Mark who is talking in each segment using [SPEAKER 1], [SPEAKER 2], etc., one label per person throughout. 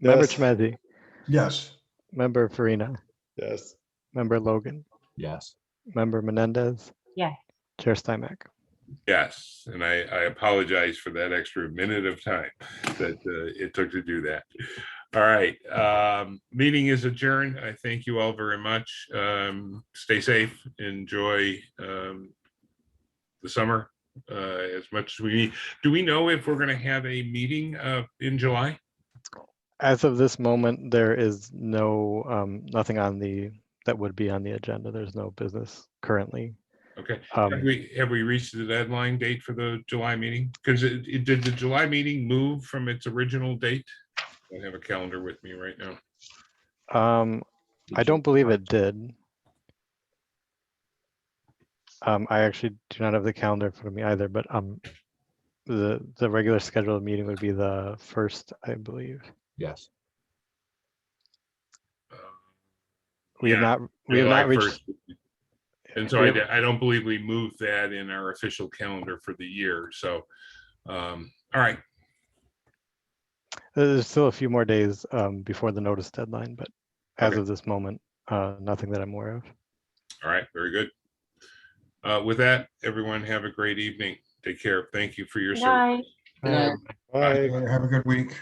[SPEAKER 1] Member
[SPEAKER 2] Yes.
[SPEAKER 1] Chmezzi,
[SPEAKER 3] Yes.
[SPEAKER 1] member Farina,
[SPEAKER 2] Yes.
[SPEAKER 1] member Logan,
[SPEAKER 4] Yes.
[SPEAKER 1] member Menendez,
[SPEAKER 5] Yes.
[SPEAKER 1] Chair Steinmach.
[SPEAKER 6] Yes, and I, I apologize for that extra minute of time that uh, it took to do that. All right, um, meeting is adjourned. I thank you all very much. Um, stay safe, enjoy um, the summer uh, as much as we need. Do we know if we're going to have a meeting uh, in July?
[SPEAKER 1] As of this moment, there is no, um, nothing on the, that would be on the agenda. There's no business currently.
[SPEAKER 6] Okay,
[SPEAKER 1] Um,
[SPEAKER 6] have we, have we reached the deadline date for the July meeting? Because it, it- did the July meeting move from its original date? I don't have a calendar with me right now.
[SPEAKER 1] Um, I don't believe it did. Um, I actually do not have the calendar in front of me either, but, um, the, the regular scheduled meeting would be the first, I believe.
[SPEAKER 4] Yes.
[SPEAKER 6] Uh,
[SPEAKER 1] We have
[SPEAKER 6] Yeah,
[SPEAKER 1] not, we have not
[SPEAKER 6] July
[SPEAKER 1] reached
[SPEAKER 6] 1st. And so
[SPEAKER 1] we
[SPEAKER 6] I,
[SPEAKER 1] have-
[SPEAKER 6] d- I don't believe we moved that in our official calendar for the year, so, um, all right,
[SPEAKER 1] There's still a few more days um, before the notice deadline, but as
[SPEAKER 6] Okay.
[SPEAKER 1] of this moment, uh, nothing that I'm aware of.
[SPEAKER 6] all right, very good. Uh, with that, everyone have a great evening. Take care. Thank you for your
[SPEAKER 5] Good
[SPEAKER 6] service.
[SPEAKER 5] night.
[SPEAKER 2] All right,
[SPEAKER 3] Have a good week.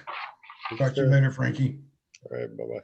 [SPEAKER 3] Talk to you later, Frankie.
[SPEAKER 2] bye-bye.